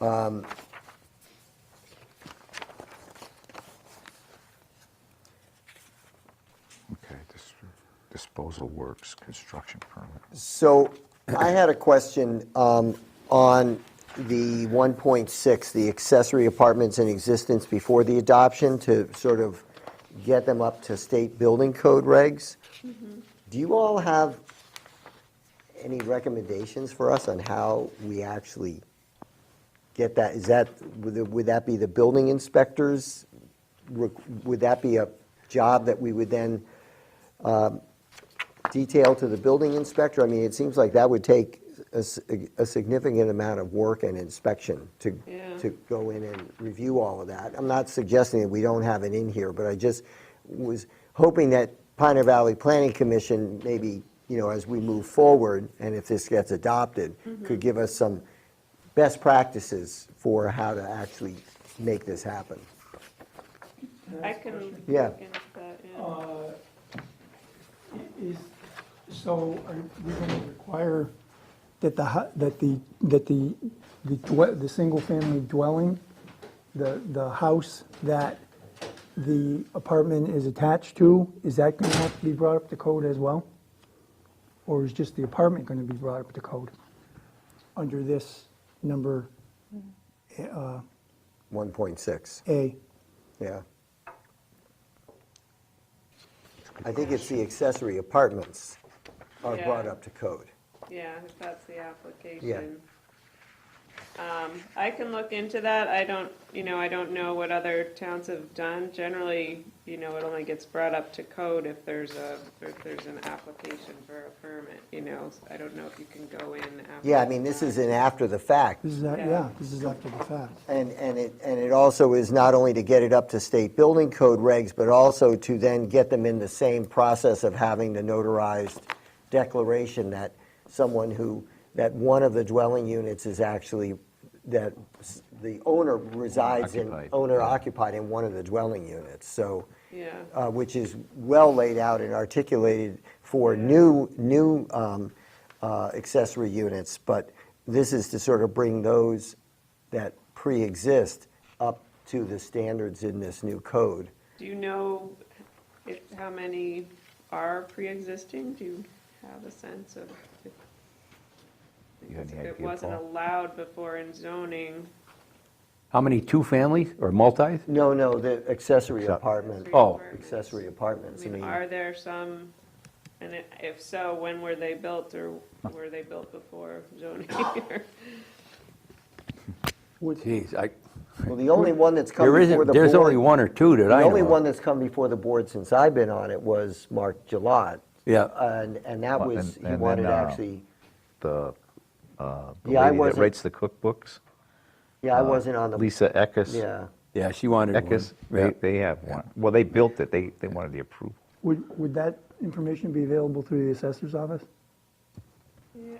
Um, Okay, dis- disposal works, construction permit. So I had a question um, on the 1.6, the accessory apartments in existence before the adoption to sort of get them up to state building code regs. Do you all have any recommendations for us on how we actually get that? Is that, would it- would that be the building inspectors? Re- Would that be a job that we would then um, detail to the building inspector? I mean, it seems like that would take a, s- a significant amount of work and inspection to, Yeah. to go in and review all of that. I'm not suggesting that we don't have it in here, but I just was hoping that Pioneer Valley Planning Commission, maybe, you know, as we move forward, and if this gets adopted, could give us some best practices for how to actually make this happen. I can look into Yeah. that, yeah. Uh, Is, so are we going to require that the, hu- that the, that the, the dwe, the single-family dwelling, the, the house that the apartment is attached to, is that going to have to be brought up to code as well? Or is just the apartment going to be brought up to code under this number 1.6, A? yeah. I think it's the accessory apartments are Yeah. brought up to code. Yeah, if that's the application. Um, I can look into that. I don't, you know, I don't know what other towns have done. Generally, you know, it only gets brought up to code if there's a, if there's an application for a permit, you know? I don't know if you can go in after. Yeah, I mean, this is an after the fact. This is, a- Yeah. yeah, this is after the fact. And, and it, and it also is not only to get it up to state building code regs, but also to then get them in the same process of having the notarized declaration that someone who, that one of the dwelling units is actually, that s- the owner resides in, Occupied, owner occupied in one of the dwelling units. So, Yeah, uh, which is well laid out and articulated for new, new um, uh, accessory units, but this is to sort of bring those that pre-exist up to the standards in this new code. do you know if, how many are pre-existing? Do you have a sense of? if- You have any It idea, wasn't Paul? allowed before in zoning. How many two-families or multis? No, no, the accessory Accessory. apartment. Oh. Accessory I apartments, I mean, mean, are there some, and i- if so, when were they built or were they built before zoning? Geez, I, well, the only one that's come there before isn't, the board. there's only one or two that I know The only of. one that's come before the board since I've been on it was Mark Gillot. Yeah. And, and that Well, was, and- he and then, wanted uh, actually, The, uh, the Yeah, I lady that wasn't- writes the cookbooks. yeah, I uh, wasn't on the. Lisa Eckes. Yeah. Yeah, she wanted one. Eckes, they, Yeah. they have one. Well, they built it, they, they wanted the approval. Would, would that information be available through the assessor's office? Yeah,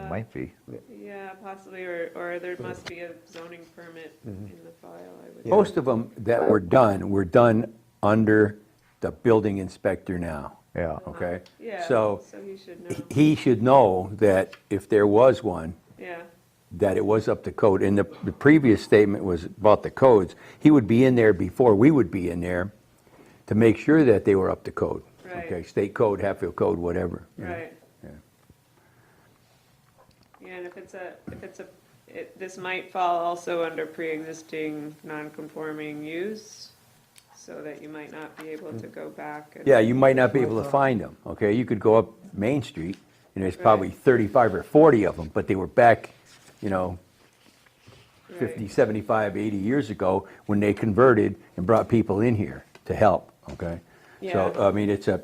It uh, might be. Yeah, possibly, or, or there must be a zoning permit in the file, I would. Most of them that were done, were done under the building inspector now. Yeah. Okay? Yeah, so So he should know, he should know that if there was one, yeah, that it was up to code. And the, the previous statement was about the codes. He would be in there before we would be in there to make sure that they were up to code. Right. Okay, state code, Hatfield code, whatever. you know. right. Yeah. Yeah, and if it's a, if it's a, it, this might fall also under pre-existing non-conforming use, so that you might not be able to go back and. Yeah, you might not be able to find them, okay? You could go up Main Street, and there's probably Right. 35 or 40 of them, but they were back, you know, 50, Right. 75, 80 years ago, when they converted and brought people in here to help, okay? So, Yeah. I mean, it's a,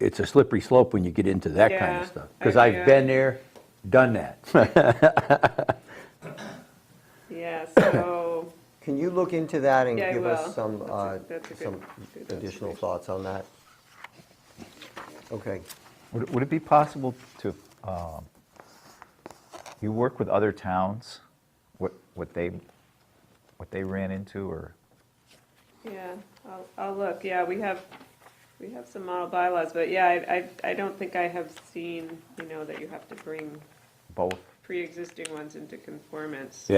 it's a slippery slope when you get into that kind Yeah, of stuff. I- Because yeah. I've been there, done that. Yeah, so, Can you look into that and Yeah, I give will. us some, That's a- uh, that's a good- some good additional observation. thoughts on that? Okay. Would, would it be possible to, um, you work with other towns, what, what they, what they ran into, or? yeah, I'll, I'll look, yeah, we have, we have some model bylaws, but yeah, I, I, I don't think I have seen, you know, that you have to bring both? pre-existing ones into conformance.